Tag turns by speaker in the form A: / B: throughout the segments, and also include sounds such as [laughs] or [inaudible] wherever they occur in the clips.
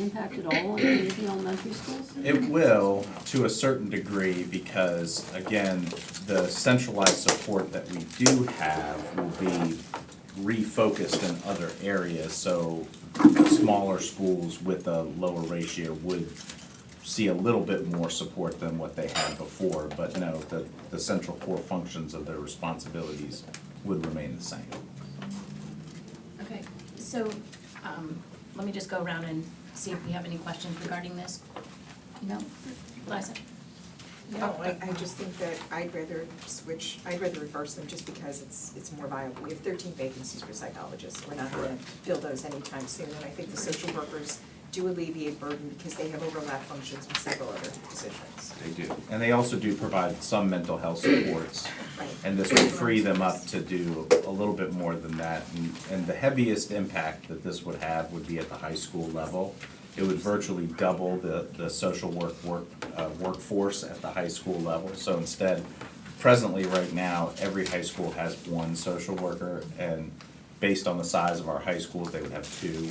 A: impact at all on any of the elementary schools?
B: It will, to a certain degree, because again, the centralized support that we do have will be refocused in other areas, so smaller schools with a lower ratio would see a little bit more support than what they had before, but no, the, the central core functions of their responsibilities would remain the same.
C: Okay, so, um, let me just go around and see if we have any questions regarding this. No? Liza?
D: No, I, I just think that I'd rather switch, I'd rather reverse them just because it's, it's more viable. We have thirteen vacancies for psychologists, we're not gonna
B: Correct.
D: fill those anytime soon. And I think the social workers do alleviate burden because they have overlap functions with several other positions.
B: They do. And they also do provide some mental health supports.
D: Right.
B: And this would free them up to do a little bit more than that. And, and the heaviest impact that this would have would be at the high school level. It would virtually double the, the social work, work, uh, workforce at the high school level. So instead, presently, right now, every high school has one social worker. And based on the size of our high schools, they would have two.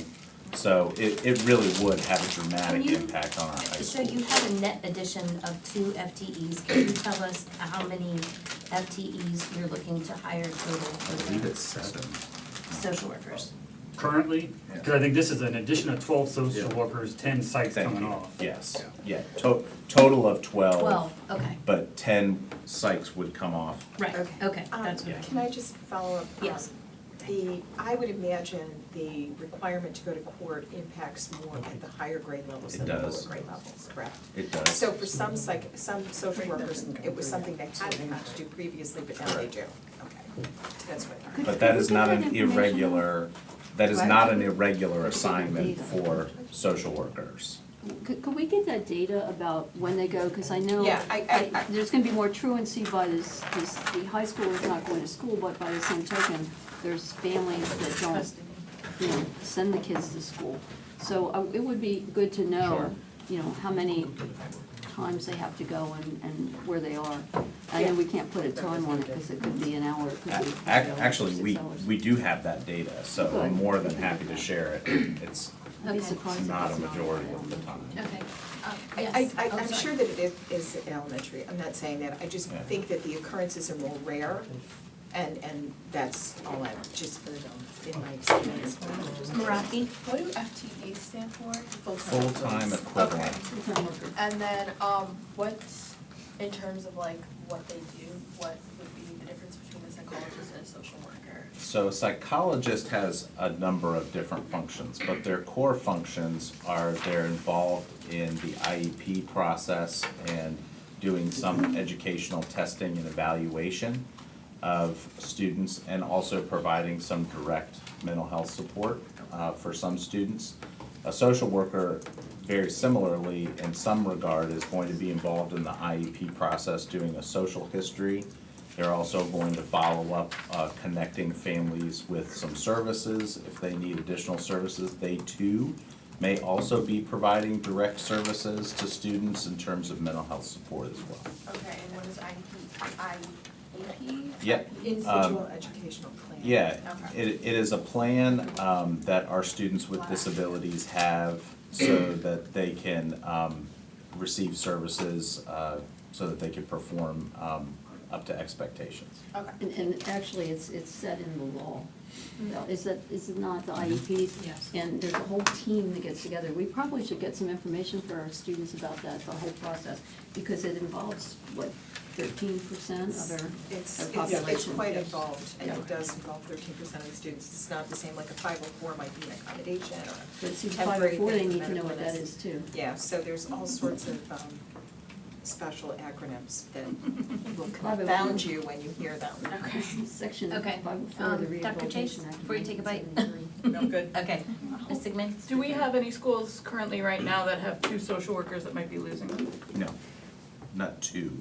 B: So it, it really would have a dramatic
C: Can you-
B: impact on our high schools.
C: So you have a net addition of two FTEs. Can you tell us how many FTEs you're looking to hire total
B: I believe
C: for the
B: it's seven.
C: social workers?
E: currently?
B: Yeah.
E: Because I think this is an addition of twelve social
B: Yeah.
E: workers, ten sites
B: Thank
E: coming
B: you.
E: off.
B: Yes, yeah, to- total of twelve.
C: Twelve, okay,
B: But ten psychs would come off.
C: right,
D: Okay.
C: okay,
D: Um,
C: that's what I.
D: Can I just follow up?
C: Yes.
D: Um, The, I would imagine the requirement to go to court impacts more at the higher grade levels
B: It
D: than the lower
B: does.
D: grade levels, correct?
B: It does.
D: So for some psych, some social workers, it was something they hadn't had to do previously, but now they do. Okay, that's what.
B: But that is not an irregular, that is
A: Right.
B: not an irregular
A: That's what we
B: assignment
A: need.
B: for social workers.
A: Could, could we get that data about when they go, because I know.
D: Yeah, I- I- I-
A: There's gonna be more truancy by this, this, the high schoolers not going to school, but by the same token, there's families that don't, you know, send the kids to school. So uh, it would be good to
B: Sure.
A: know, you know, how many times they have to go and, and where they are. I know we can't put a time on it, because it could be an hour, it
B: A-
A: could be.
B: ac- Actually,
A: six
B: we,
A: hours.
B: we do have that data, so I'm
A: Good.
B: more than happy to share it. It's
A: I'd be
C: Okay.
A: surprised if
B: not a
A: it's
B: majority of the time.
C: Okay, uh,
D: I,
C: yes.
D: I,
C: Oh,
D: I'm
C: sorry.
D: sure that it is, is elementary, I'm not saying that, I just
B: Yeah.
D: think that the occurrences are more rare, and, and that's all I'm, just um, in my experience.
F: Maraki, what do FTE stand for?
B: Full-time equivalent.
F: And then, um, what, in terms of like what they do, what would be the difference between a psychologist and a social worker?
B: So a psychologist has a number of different functions, but their core functions are they're involved in the IEP process and doing some educational testing and evaluation of students and also providing some direct mental health support uh, for some students. A social worker, very similarly, in some regard, is going to be involved in the IEP process, doing a social history. They're also going to follow up, uh, connecting families with some services. If they need additional services, they too may also be providing direct services to students in terms of mental health support as well.
F: Okay, and what is IEP, IEP?
B: Yeah.
D: Individual educational plan.
B: Yeah,
F: Okay.
B: it, it is a plan, um, that our students with disabilities have so that they can, um, receive services, uh, so that they can perform, um, up to expectations.
F: Okay.
A: And, and actually, it's, it's set in the law. Is that, is it not the IEPs?
C: Mm. Yes.
A: And there's a whole team that gets together. We probably should get some information for our students about that, the whole process, because it involves, what, thirteen percent of our, our
D: It's, it's, it's
A: population?
D: quite involved, and
A: Yeah.
D: it does involve thirteen percent of the students, it's not the same, like a five oh four might be an accommodation or
A: But
D: a
A: see, five or
D: temporary
A: four, they
D: thing for
A: need to know
D: medical
A: what that
D: illness.
A: is too.
D: Yeah, so there's all sorts of, um, special acronyms that will
A: oh
D: confound you when you hear them.
C: Okay.
A: [laughs] Section five
C: Okay.
A: oh four of the
C: Um, Dr. Chase,
A: Rehabilitation Act.
C: before you take a bite. [laughs]
G: No, good.
C: Okay, Ms. Sigmund?
G: Do we have any schools currently right now that have two social workers that might be losing them?
B: No, not two.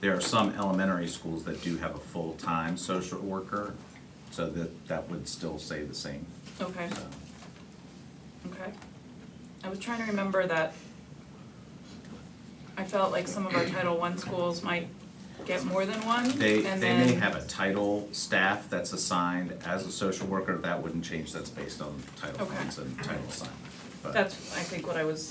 B: There are some elementary schools that do have a full-time social worker, so that, that would still say the same,
G: Okay,
B: so.
G: okay. I was trying to remember that I felt like some of our Title I schools might get more than one, and
B: They,
G: then.
B: they may have a title staff that's assigned as a social worker, that wouldn't change, that's based on title
G: Okay.
B: funds and title assignment. but.
G: That's, I think, what I was